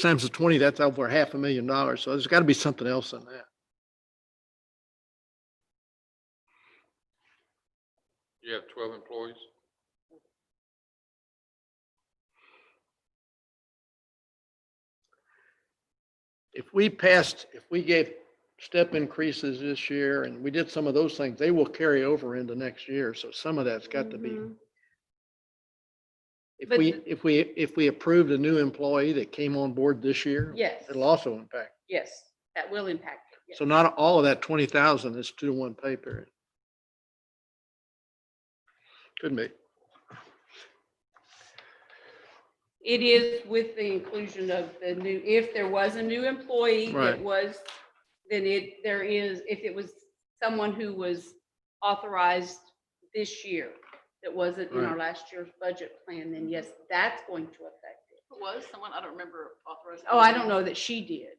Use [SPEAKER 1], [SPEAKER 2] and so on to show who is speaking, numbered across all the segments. [SPEAKER 1] times the twenty, that's over half a million dollars. So there's got to be something else in that.
[SPEAKER 2] You have twelve employees?
[SPEAKER 1] If we passed, if we gave step increases this year and we did some of those things, they will carry over into next year. So some of that's got to be.
[SPEAKER 3] Mhm.
[SPEAKER 1] If
[SPEAKER 3] But
[SPEAKER 1] we,
[SPEAKER 3] the-
[SPEAKER 1] if we, if we approved a new employee that came on board this year,
[SPEAKER 3] Yes,
[SPEAKER 1] it'll also impact.
[SPEAKER 3] yes, that will impact. it, yes.
[SPEAKER 1] So not all of that twenty thousand is two to one pay period. Could be.
[SPEAKER 3] It is with the inclusion of the new, if there was a new employee
[SPEAKER 1] Right.
[SPEAKER 3] that was, then it, there is, if it was someone who was authorized this year that wasn't in our
[SPEAKER 1] Right.
[SPEAKER 3] last year's budget plan, then yes, that's going to affect it.
[SPEAKER 4] It was someone, I don't remember authorized.
[SPEAKER 3] Oh, I don't know that she did.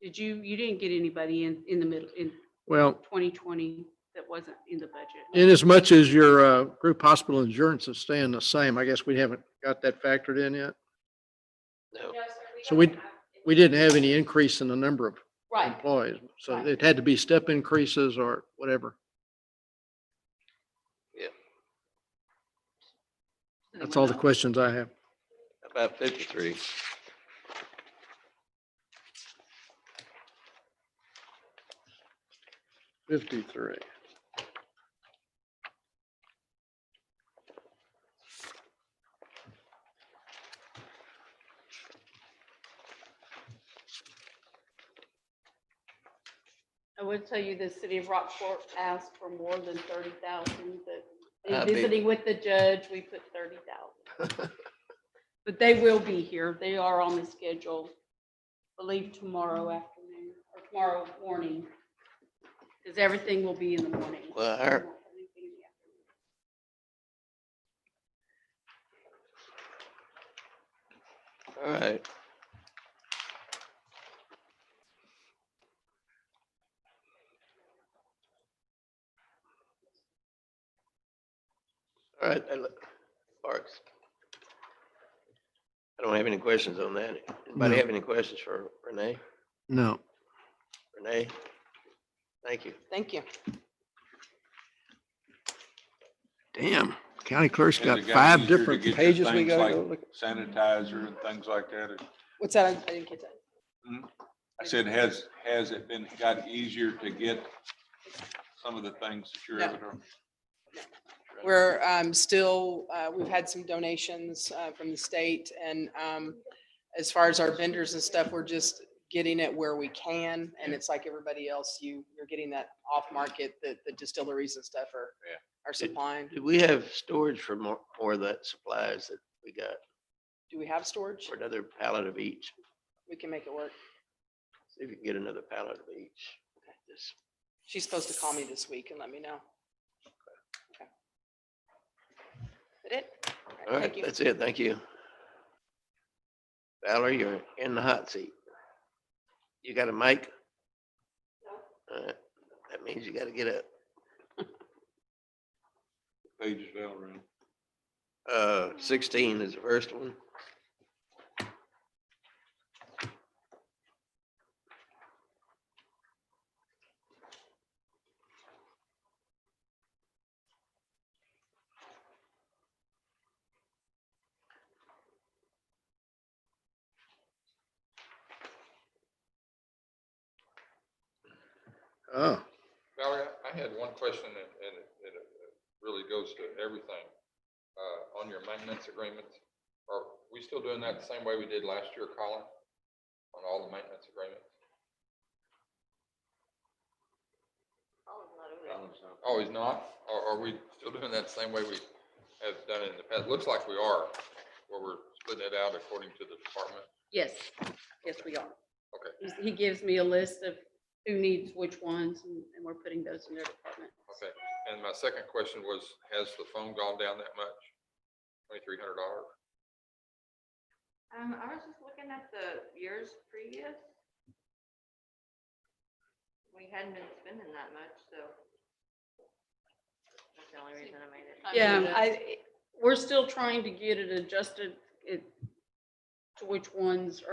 [SPEAKER 3] Did you, you didn't get anybody in, in the middle, in
[SPEAKER 1] Well,
[SPEAKER 3] twenty twenty that wasn't in the budget?
[SPEAKER 1] in as much as your uh, group hospital insurance is staying the same, I guess we haven't got that factored in yet. So we- We didn't have any increase in the number of
[SPEAKER 3] Right,
[SPEAKER 1] employees, so
[SPEAKER 3] Right.
[SPEAKER 1] it had to be step increases or whatever. That's all the questions I have.
[SPEAKER 5] About fifty-three.
[SPEAKER 1] Fifty-three.
[SPEAKER 3] I would tell you the city of Rockport asked for more than thirty thousand,
[SPEAKER 5] I
[SPEAKER 3] but
[SPEAKER 5] bet.
[SPEAKER 3] in visiting with the judge, we put thirty thousand. But they will be here. They are on the schedule, I believe tomorrow afternoon or tomorrow morning. Because everything will be in the morning.
[SPEAKER 5] Well, I heard- All right. All right, I look- Parks. I don't have any questions on that. Anybody
[SPEAKER 1] No.
[SPEAKER 5] have any questions for Renee?
[SPEAKER 1] No.
[SPEAKER 5] Renee? Thank you.
[SPEAKER 4] Thank you.
[SPEAKER 1] Damn, county clerk's
[SPEAKER 2] Has it
[SPEAKER 1] got
[SPEAKER 2] gotten
[SPEAKER 1] five
[SPEAKER 2] easier to
[SPEAKER 1] different
[SPEAKER 2] get your
[SPEAKER 1] pages we
[SPEAKER 2] things
[SPEAKER 1] gotta
[SPEAKER 2] like-
[SPEAKER 1] go look. at?
[SPEAKER 2] Sanitizer and things like that.
[SPEAKER 4] What's that? I didn't catch that.
[SPEAKER 2] I said, has, has it been, got easier to get some of the things that you're able to?
[SPEAKER 4] We're um, still, uh, we've had some donations uh, from the state and um, as far as our vendors and stuff, we're just getting it where we can. And it's like everybody else, you, you're getting that off market that the distilleries and stuff are,
[SPEAKER 2] Yeah.
[SPEAKER 4] are supplying.
[SPEAKER 5] Do we have storage for more, more of that supplies that we got
[SPEAKER 4] Do we have storage?
[SPEAKER 5] for another pallet of each?
[SPEAKER 4] We can make it work.
[SPEAKER 5] See if you can get another pallet of each. Just-
[SPEAKER 4] She's supposed to call me this week and let me know. Okay. That it?
[SPEAKER 5] All
[SPEAKER 4] Thank
[SPEAKER 5] right,
[SPEAKER 4] you.
[SPEAKER 5] that's it. Thank you. Valerie, you're in the hot seat. You got a mic? All right, That means you gotta get up.
[SPEAKER 2] Pages down around.
[SPEAKER 5] Uh, sixteen is the first one.
[SPEAKER 1] Oh,
[SPEAKER 2] Valerie, I had one question and, and it- it uh, really goes to everything. Uh, on your maintenance agreements, are we still doing that the same way we did last year, Colin? On all the maintenance agreements? Always not? Are, are we still doing that the same way we have done it in the past? Looks like we are, where we're splitting it out according to the department.
[SPEAKER 3] Yes, yes, we are.
[SPEAKER 2] Okay.
[SPEAKER 3] He's- He gives me a list of who needs which ones and and we're putting those in their department.
[SPEAKER 2] Okay. And my second question was, has the phone gone down that much? Twenty-three hundred dollars?
[SPEAKER 6] Um, I was just looking at the years previous. We hadn't been spending that much, so. That's the only reason I made it.
[SPEAKER 4] I mean,
[SPEAKER 3] Yeah,
[SPEAKER 4] that's-
[SPEAKER 3] I, we're still trying to get it adjusted, it, to which ones are.